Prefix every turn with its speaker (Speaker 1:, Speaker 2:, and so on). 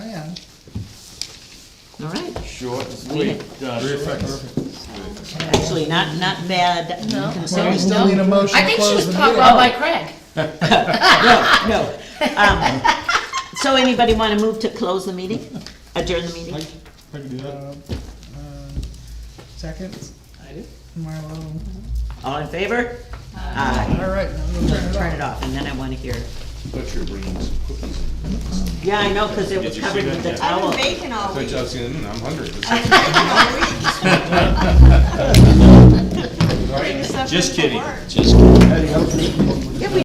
Speaker 1: Short and sweet, done.
Speaker 2: Actually, not, not bad
Speaker 3: Well,
Speaker 2: considering.
Speaker 3: we still need a motion
Speaker 4: I
Speaker 3: to
Speaker 4: think she
Speaker 3: close
Speaker 4: was
Speaker 3: the
Speaker 4: taught
Speaker 3: meeting.
Speaker 4: well by Craig.
Speaker 2: No, no. Um, So anybody want to move to close the meeting? Adjourn the meeting?
Speaker 3: Uh, Second? I do. Marlo,
Speaker 2: All in favor? Aye.
Speaker 3: all right, now we'll turn it
Speaker 2: Turn
Speaker 3: off.
Speaker 2: it off, and then I want to hear.
Speaker 1: Thought you were bringing some cookies.
Speaker 2: Yeah, I know, because it was
Speaker 1: you see
Speaker 2: covered
Speaker 1: that?
Speaker 2: with the
Speaker 1: Yeah.
Speaker 2: towel.
Speaker 5: Bacon all
Speaker 6: Thought
Speaker 5: week.
Speaker 6: you was gonna, mm, I'm hungry.
Speaker 5: Bring us up
Speaker 1: Just
Speaker 5: for
Speaker 1: kidding.
Speaker 5: work.